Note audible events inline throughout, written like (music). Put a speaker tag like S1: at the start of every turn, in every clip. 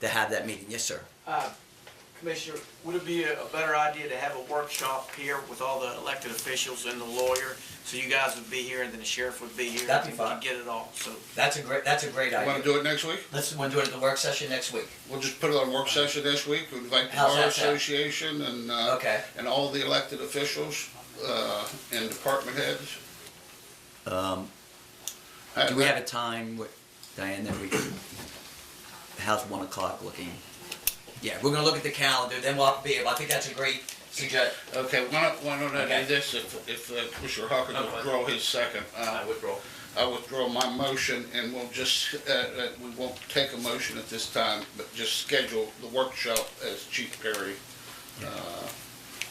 S1: to have that meeting. Yes, sir.
S2: Uh, Commissioner, would it be a a better idea to have a workshop here with all the elected officials and the lawyer? So you guys would be here and then the sheriff would be here?
S3: That'd be fine.
S2: To get it all, so.
S3: That's a great, that's a great
S4: You wanna
S3: idea.
S4: do it next week?
S3: Let's, we'll do it at the work session next week.
S4: We'll just put it on work session this week, We invite the
S3: How's
S4: bar
S3: that sound?
S4: association and, uh,
S3: Okay.
S4: and all the elected officials, uh, and department heads. Uh,
S1: Um, do we have a time, with- Diane, that we can, how's one o'clock looking?
S3: Yeah, we're gonna look at the calendar, then we'll be able, I think that's a great suggestion.
S4: Okay, why don't, why don't I
S3: Okay.
S4: do this, if, if uh, Commissioner Hawkins
S5: Okay.
S4: withdraw his second,
S5: I
S4: uh,
S5: withdraw.
S4: I withdraw my motion and we'll just, uh, uh, we won't take a motion at this time, but just schedule the workshop as Chief Perry, uh,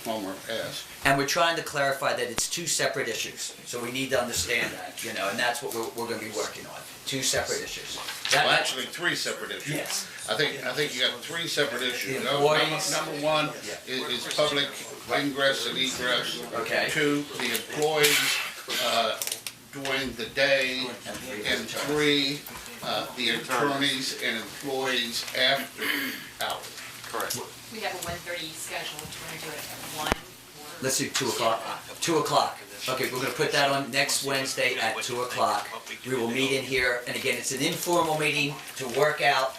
S4: Homer asked.
S3: And we're trying to clarify that it's two separate issues, so we need to understand that, you know, and that's what we're, we're gonna be working on, two separate issues. That-
S4: Well, actually, three separate issues.
S3: Yes.
S4: I think, I think you got three separate issues.
S3: The
S4: No- Number
S3: employees-
S4: number one is, is public ingress and egress.
S3: Okay.
S4: Two, the employees, uh, during the day.
S3: And three.
S4: And three, uh, the attorneys and employees after hours.
S2: Correct.
S6: We have a one thirty scheduled, do you wanna do it at one or?
S3: Let's do two o'clock, two o'clock. Okay, we're gonna put that on next Wednesday at two o'clock. We will meet in here, and again, it's an informal meeting to work out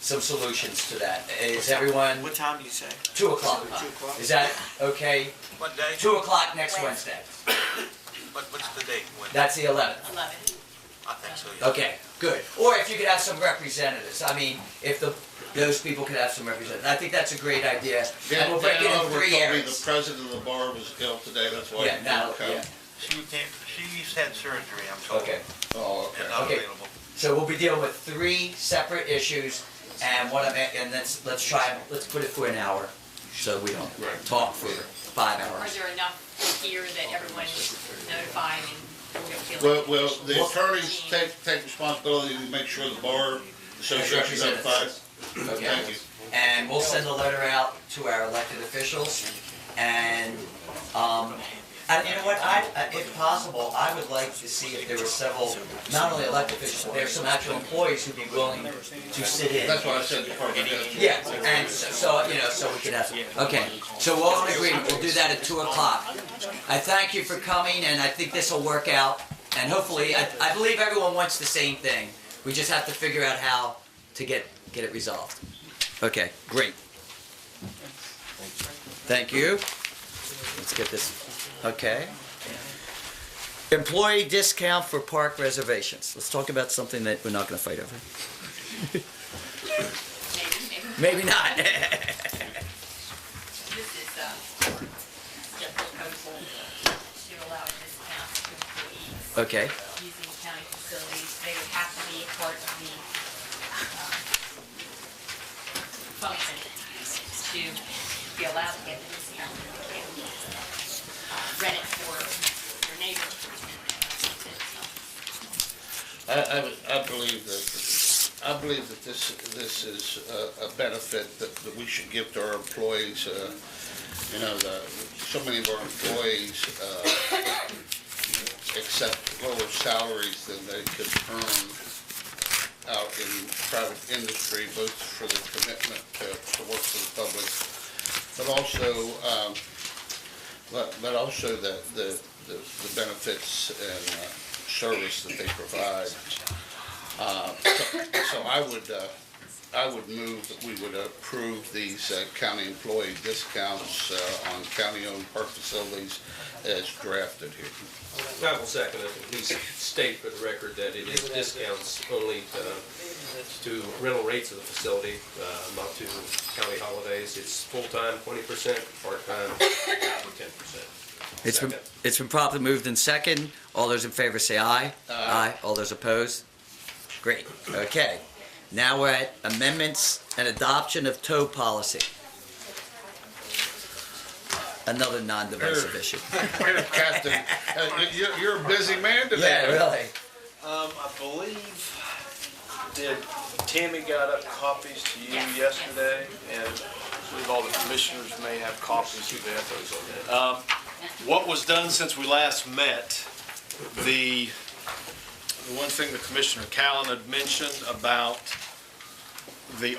S3: some solutions to that. Is everyone,
S2: What time do you say?
S3: two o'clock?
S2: Two o'clock.
S3: Is that okay?
S5: What day?
S3: Two o'clock next Wednesday.
S5: What, what's the date? When?
S3: That's the eleventh.
S6: Eleven.
S5: I think so, yeah.
S3: Okay, good. Or if you could have some representatives, I mean, if the, those people could have some representatives. I think that's a great idea. And
S4: Dan
S3: we'll break it
S4: Dan
S3: in
S4: Oliver told
S3: three
S4: me the
S3: areas.
S4: president of the bar was ill today, that's why he
S3: Yeah, now,
S4: couldn't
S3: yeah,
S4: come.
S5: She can't, she's had surgery, I'm told.
S3: okay.
S4: Oh,
S5: And
S4: okay.
S5: not
S3: Okay.
S5: available.
S3: So we'll be dealing with three separate issues, and one of, it- and let's, let's try, let's put it for an hour, so we don't
S4: Right.
S3: talk for five
S6: Or is
S3: hours.
S6: there enough here that everyone is notified and we don't feel?
S4: Well,
S6: like-
S4: well, the
S3: Well-
S4: attorneys take, take responsibility to make sure the bar association is notified.
S3: Okay.
S4: Thank you.
S3: And we'll send a letter out to our elected officials, and, um, and you know what, I, uh, if possible, I would like to see if there were several, not only elected officials, but there's some actual employees who'd be willing to sit in.
S4: That's why I said department heads.
S3: Yeah, and so, you know, so we could have, okay, so we're all in agreement, we'll do that at two o'clock. I thank you for coming, and I think this will work out, and hopefully, I, I believe everyone wants the same thing. We just have to figure out how to get, get it resolved. Okay, great. Thank you. Let's get this, okay. Employee discount for park reservations. Let's talk about something that we're not gonna fight over.
S6: Maybe, maybe.
S3: Maybe not. (laughs)
S6: This is, uh, the proposal to allow a discount to employees
S3: Okay.
S6: using county facilities. They would have to be part of the, um, uh, function to be allowed to get the discount. They can't, uh, Rent it for your neighbor.
S4: I, I, would- I believe that, I believe that this, this is a, a benefit that, that we should give to our employees. uh, You know, the, so many of our employees, uh, accept lower salaries than they could earn out in private industry, both for their commitment to, to work for the public, but also, um, but, but also the, the, the the benefits and, uh, service that they provide. Uh, so- So I would, uh, I would move that we would approve these uh, county employee discounts uh, on county-owned park facilities as drafted here. (laughs)
S7: I will second it, at least state for the record that it is discounts only to- to rental rates of the facility, uh, not to county holidays. It's full-time twenty percent, part-time (coughs) ten percent.
S3: It's been, it's been properly moved in second. All those in favor say aye. Aye. All those opposed? Great, okay. Now we're at amendments and adoption of tow policy. Another non-divisive issue.
S4: Captain, uh, you- you're, you're a busy man
S3: (laughs) Yeah,
S4: today.
S3: really.
S8: Um, I believe, did, Tammy got up copies to you
S6: Yes, yes.
S8: yesterday, and I believe all the commissioners may have copies of that. Um, what was done since we last met, the, the one thing the Commissioner Callan had mentioned about the